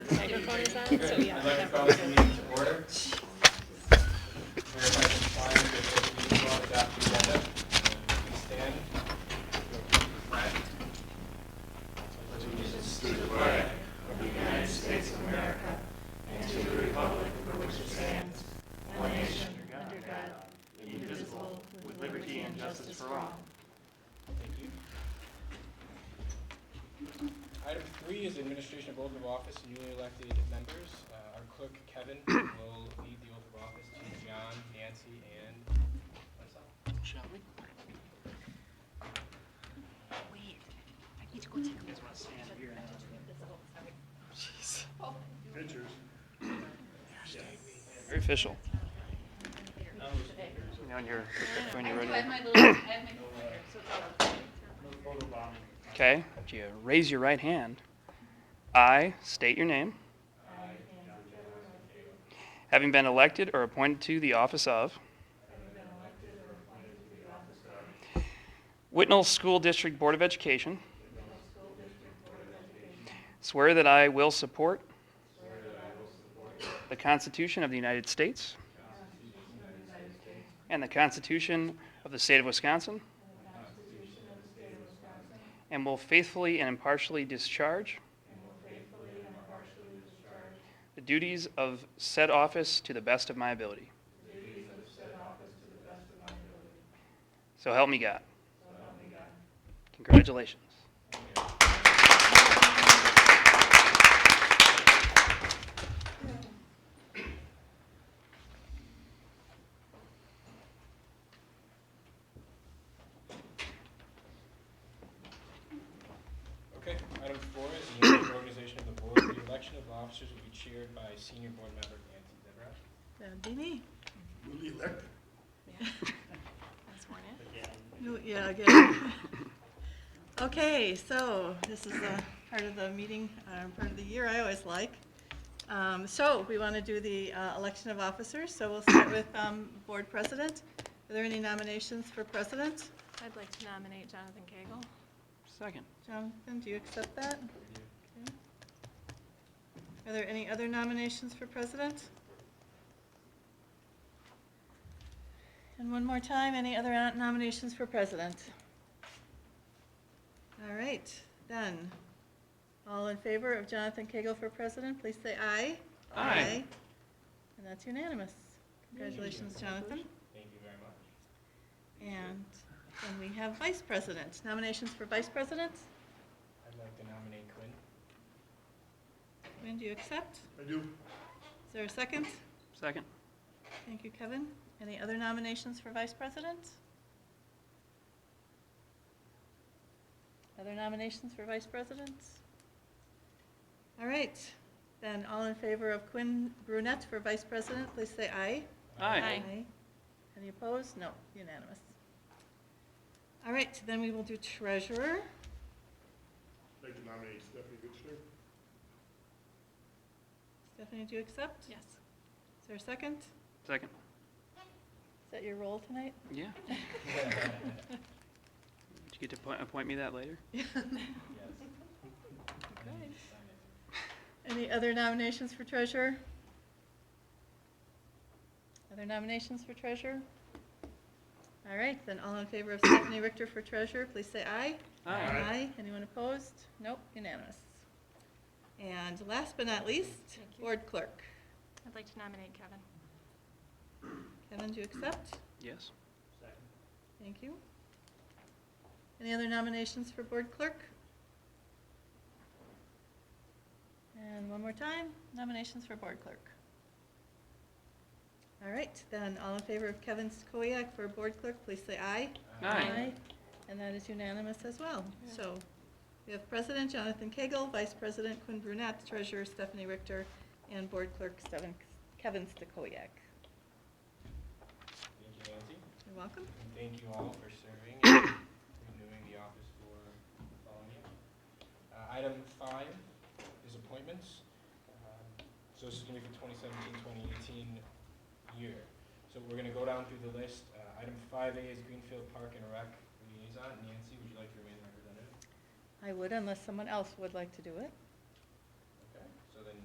microphone is on, so yeah. I'd like to that call works. the meeting to order. Verify compliance with open meeting law, adopt the agenda. Please stand. Item three is administration of oath of office to newly elected members. Uh, Our clerk Kevin will lead the oath of office to John, Nancy, and myself. Shall we? Wait, I need to go take a look. Jeez. Very official. Now in your- when you're ready. Okay, do you raise your right hand? I state your name. Having been elected or appointed to the office of Whitnall School District Board of Education. Swear that I will support the Constitution of the United States and the Constitution of the State of Wisconsin. And will faithfully and impartially discharge. The duties of said office to the best of my ability. So help me God. Congratulations. Okay, item four is the annual organization of the board. The election of officers will be chaired by senior board member Nancy Deveraux. That'd be me. Newly elected. That's sworn in. You- Yeah, again. Okay, so this is the part of the meeting, uh, part of the year I always like. Um, So we want to do the uh, election of officers, so we'll start with um, board president. Are there any nominations for president? I'd like to nominate Jonathan Cagle. Second. Jonathan, do you accept that? Okay. Are there any other nominations for president? And one more time, any other uh, nominations for president? All right, then. All in favor of Jonathan Cagle for president, please say aye. Aye. And that's unanimous. Congratulations, Jonathan. Thank you very much. And then we have vice president. Nominations for vice president? I'd like to nominate Quinn. Quinn, do you accept? I do. Is there a second? Second. Thank you, Kevin. Any other nominations for vice president? Other nominations for vice president? All right, then all in favor of Quinn Brunette for vice president, please say aye. Aye. Any opposed? No, unanimous. All right, then we will do treasurer. I'd like to nominate Stephanie Goodstein. Stephanie, do you accept? Yes. Is there a second? Second. Is that your role tonight? Yeah. Did you get to appoint, appoint me that later? Any other nominations for treasurer? Other nominations for treasurer? All right, then all in favor of Stephanie Richter for treasurer, please say aye. Aye. Anyone opposed? Nope, unanimous. And last but not least, Thank you. board clerk. I'd like to nominate Kevin. Kevin, do you accept? Yes. Thank you. Any other nominations for board clerk? And one more time, nominations for board clerk. All right, then, all in favor of Kevin Stokoyak for board clerk, please say aye. Aye. And that is unanimous as well. So we have President Jonathan Cagle, Vice President Quinn Brunette, Treasurer Stephanie Richter, and Board Clerk Steven- Kevin Stokoyak. Thank you, Nancy. You're welcome. And thank you all for serving and renewing the office for following you. Uh, Item five is appointments. Um, So this is going to be for 2017, 2018 year. So we're going to go down through the list. Uh, Item 5A is Greenfield Park and Rec Liaison. Nancy, would you like to remain the representative? I would, unless someone else would like to do it.